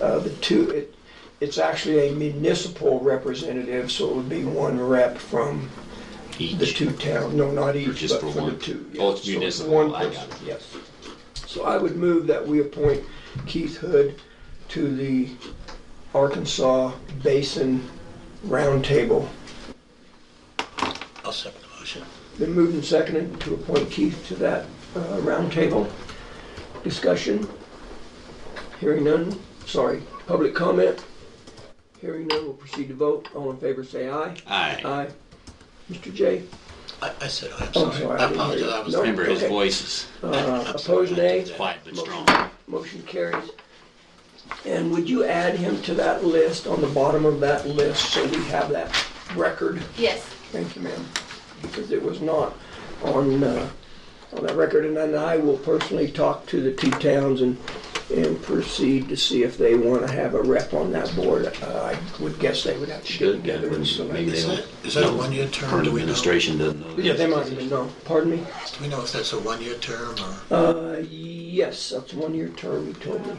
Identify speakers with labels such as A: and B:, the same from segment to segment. A: Uh, The two, it, it's actually a municipal representative, so it would be one rep from the
B: each.
A: two towns, no, not
B: Or
A: each,
B: just
A: but
B: for
A: for the
B: one?
A: two.
B: Oh, it's
A: yes. So
B: municipal,
A: one
B: I got
A: person, Yes. So I would move that we appoint Keith Hood to the Arkansas Basin Roundtable.
C: I'll second the motion.
A: Been moved and seconded to appoint Keith to that uh, roundtable discussion. Hearing none, sorry, public comment. Hearing none, we'll proceed to vote. All in favor, say aye.
B: Aye.
A: Aye. Mr. J?
C: I, I said aye, I'm
A: Oh,
C: sorry.
A: sorry,
C: I
A: I didn't hear you.
C: apologize, I was.
A: No.
B: Remember, his
A: Okay.
B: voice is
A: Uh, Opposed, nay?
B: quiet but strong.
A: Motion carries. And would you add him to that list, on the bottom of that list, so we have that record?
D: Yes.
A: Thank you, ma'am, because it was not on, uh, on that record, and then I will personally talk to the two towns and, and proceed to see if they want to have a rep on that board. Uh, I would guess they would have to get
B: Should, yeah,
A: together and
B: maybe
A: select.
B: they
C: Is
B: don't.
C: that- is that a
B: know.
C: one-year term?
B: Current
C: Do we know?
B: administration doesn't know.
A: Yeah, they might even know, pardon me?
C: Do we know if that's a one-year term or?
A: Uh, yes, that's one year term, you told me.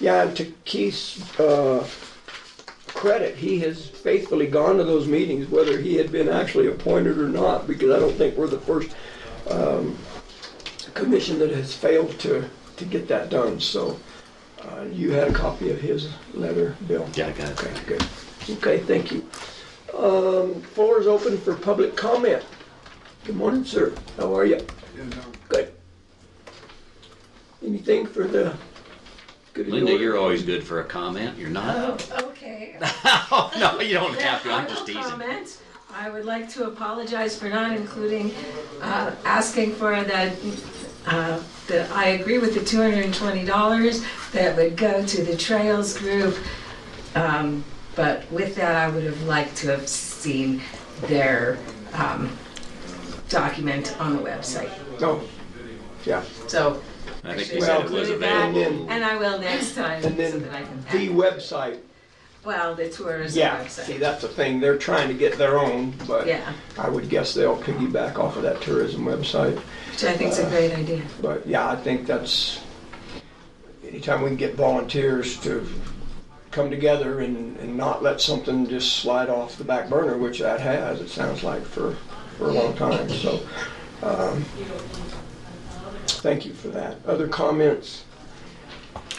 A: Yeah, and to Keith's, uh, credit, he has faithfully gone to those meetings, whether he had been actually appointed or not, because I don't think we're the first, um, commission that has failed to, to get that done, so, uh, you had a copy of his letter, Bill?
B: Yeah, I got it.
A: Okay, good. Okay, thank you. Um, floor is open for public comment. Good morning, sir. How are you? Good. Anything for the good of the
B: Linda,
A: order?
B: you're always good for a comment. You're not.
E: Okay.
B: Oh, no, you don't have to. I'm
E: I
B: just
E: will
B: teasing.
E: comment. I would like to apologize for not including, uh, asking for that, uh, that I agree with the $220 that would go to the Trails Group. Um, But with that, I would have liked to have seen their um, document on the website.
A: No. Yeah.
E: So
B: I think they said it was
E: included that,
B: available.
E: And I will next time so
A: And then
E: that I can.
A: the website,
E: Well, the tourism
A: yeah, see,
E: website.
A: that's the thing, they're trying to get their own, but
E: Yeah,
A: I would guess they'll piggyback off of that tourism website.
E: which I think is a great idea.
A: But yeah, I think that's, anytime we can get volunteers to come together and, and not let something just slide off the back burner, which that has, it sounds like, for, for a long time, so. um, Thank you for that. Other comments?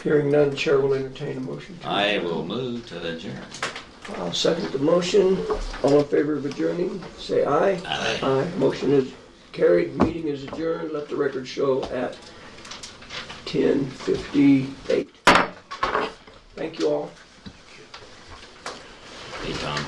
A: Hearing none, Chair will entertain a motion. to-
B: I will move to adjourn.
A: I'll second the motion. All in favor of adjourning, say aye.
B: Aye.
A: Aye. Motion is carried, meeting is adjourned. Let the record show at 10:58. Thank you all.
B: Hey, Tom.